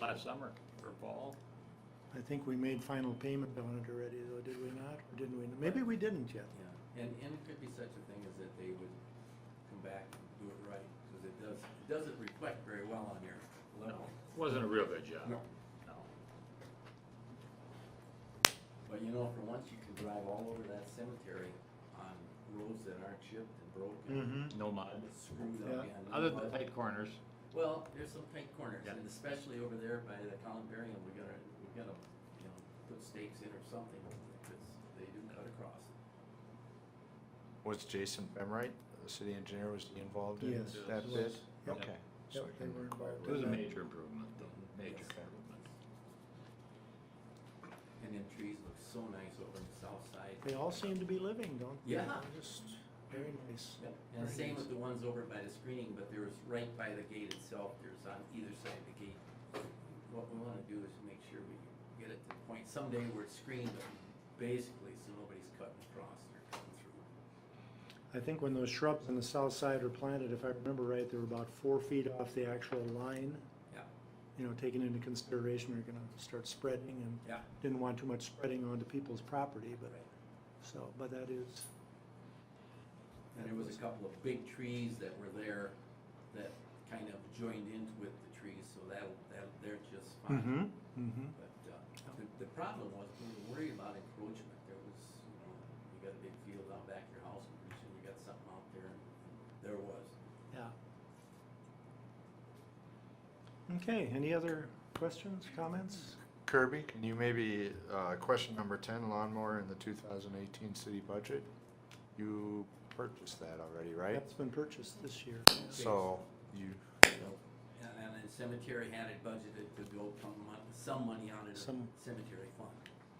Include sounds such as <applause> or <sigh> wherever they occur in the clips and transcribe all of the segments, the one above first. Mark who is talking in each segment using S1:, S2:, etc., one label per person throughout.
S1: last summer or fall.
S2: I think we made final payment on it already though, did we not? Or didn't we? Maybe we didn't yet.
S3: Yeah, and, and it could be such a thing as that they would come back and do it right, because it does, it doesn't reflect very well on your level.
S1: Wasn't a real good job.
S3: No.
S1: No.
S3: But you know, for once, you can drive all over that cemetery on roads that aren't chipped and broken.
S2: Mm-hmm.
S1: No mud.
S3: and Screwed
S2: Yeah.
S3: up. and
S1: Other than
S3: mud.
S1: tight corners.
S3: Well, there's some tight corners,
S1: Yeah.
S3: and especially over there by the columbarium, we gotta, we gotta, you know, put stakes in or something, because they do cut across.
S4: Was Jason Bemright, the city engineer, was he involved in
S2: Yes.
S4: that
S2: Yes.
S4: bid?
S2: Yep.
S4: Okay.
S2: Yep,
S4: so
S2: they
S4: he
S2: were
S4: inquired
S2: involved
S1: It was a
S4: about
S1: major improvement though, major
S3: Yes.
S1: improvement.
S3: And them trees look so nice over on the south side.
S2: They all seem to be living, don't they?
S3: Yeah.
S2: They're Just very nice.
S3: Yep, And
S2: Very
S3: same
S2: nice.
S3: with the ones over by the screening, but there was right by the gate itself, there's on either side of the gate. What we wanna do is make sure we get it to the point someday where it's screened, but basically, so nobody's cutting across or cutting
S2: I
S3: through.
S2: think when those shrubs on the south side were planted, if I remember right, they were about four feet off the actual line.
S3: Yeah.
S2: You know, taking into consideration, we are gonna start spreading and
S3: Yeah.
S2: didn't want too much spreading onto people's property, but,
S3: Right.
S2: so, but that is.
S3: And there was a couple of big trees that were there that kind of joined in with the trees, so that, that, they're just
S2: Mm-hmm,
S3: fine.
S2: mm-hmm.
S3: But, uh, the, the problem was, we were worried about encroachment, there was, you know, you got a big field out back of your house, and pretty soon you got something out there, and there was.
S2: Yeah. Okay, any other questions, comments?
S4: Kirby, can you maybe, uh, question number ten, lawnmower in the two thousand eighteen city budget? You purchased that already, right?
S2: That's been purchased this year.
S4: So you,
S3: And, and the cemetery had it budgeted to go some mon- some money out of the
S2: Some-
S3: cemetery fund.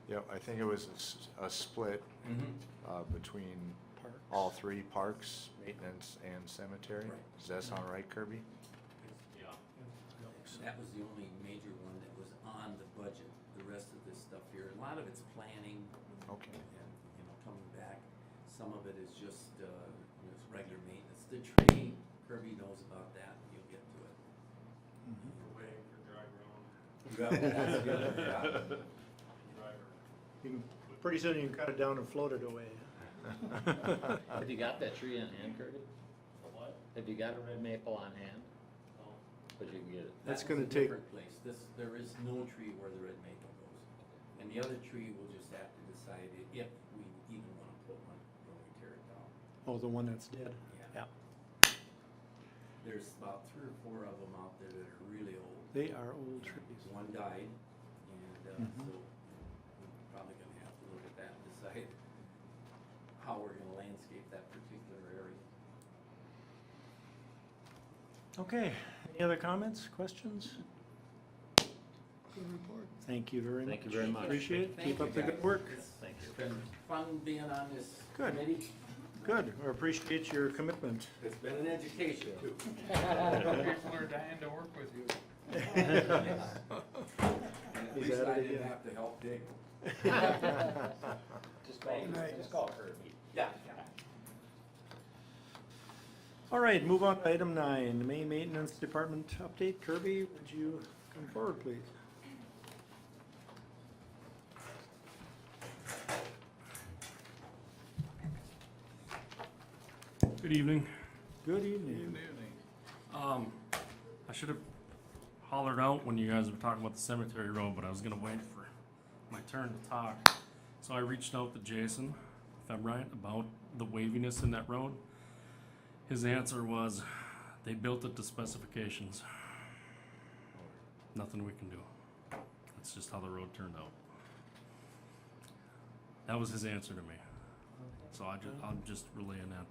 S4: yeah, I think it was a s- a, split, uh, between
S2: Parks.
S4: all three parks, maintenance and cemetery.
S3: Right.
S4: Does that sound right, Kirby?
S1: Yeah.
S3: That was the only major one that was on the budget, the rest of this stuff here, a lot of it's planning,
S4: Okay.
S3: and, you know, coming back. Some of it is just, uh, you know, it's regular maintenance. The tree, Kirby knows about that, you'll get to it.
S2: Mhm.
S5: We're waiting for dry ground,
S3: That's the other problem.
S5: driver.
S2: You can- Pretty soon you can cut it down and float it away.
S6: Have you got that tree on hand, Kirby?
S5: What?
S6: Have you got a red maple on hand?
S5: No.
S6: But you can get it.
S2: That's
S3: That was
S2: gonna
S3: a
S2: take-
S3: Different place, this, there is no tree where the red maple goes. And the other tree, we'll just have to decide i- if we even wanna put one when we tear it down.
S2: Oh, the one that's dead. Yeah.
S3: There's about three or four of them out there that are really old.
S2: They are old trees.
S3: One died, and, uh,
S2: Mhm.
S6: Mm-hmm.
S3: so we're probably gonna have to look at that and decide how we're gonna landscape that particular area.
S2: Okay, any other comments, questions? Good report. Thank you very much.
S6: Thank you very much.
S2: Appreciate it.
S3: Thank
S2: Keep
S3: you,
S2: up the good
S3: guys.
S2: work.
S3: It's
S6: Thank you.
S3: been fun being on this
S2: Good.
S3: committee.
S2: Good, we appreciate your commitment. <laughs>
S3: It's been an education too.
S5: People
S6: <laughs>
S5: are dying to work with you.
S3: And at
S2: He's
S3: least
S2: at
S3: I
S2: it
S3: didn't
S2: again.
S3: have to help dig.
S2: <laughs>
S4: <laughs>
S6: Just call, just call Kirby.
S3: Yeah.
S2: All right, move on to item nine, Main Maintenance Department update. Kirby, would you come forward, please?
S7: Good evening.
S2: Good evening.
S7: Um, I should have hollered out when you guys were talking about the cemetery road, but I was gonna wait for my turn to talk. So I reached out to Jason, if I'm right, about the waviness in that road. His answer was, they built it to specifications. Nothing we can do. That's just how the road turned out. That was his answer to me. So I just, I'm just relaying that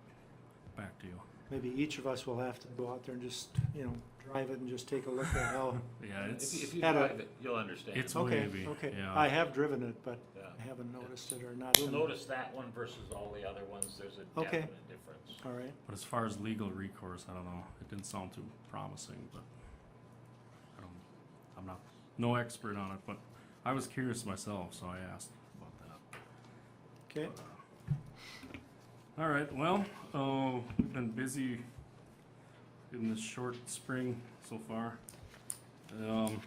S7: back to you.
S2: Maybe each of us will have to go out there and just, you know, drive it and just take a look at
S7: <laughs>
S2: how.
S7: Yeah, it's.
S1: If if you
S2: Had a-
S1: drive it, you'll understand.
S7: It's-
S2: Okay,
S7: Maybe,
S2: okay.
S7: yeah.
S2: I have driven it, but
S1: Yeah.
S2: I haven't noticed it or not.
S1: You'll notice that one versus all the other ones, there's a
S2: Okay.
S1: definite difference.
S2: All right.
S7: But as far as legal recourse, I don't know. It didn't sound too promising, but I don't. I'm not no expert on it, but I was curious myself, so I asked about that.
S2: Okay,
S7: All right. Well, uh, we've been busy in this short spring so far. Um,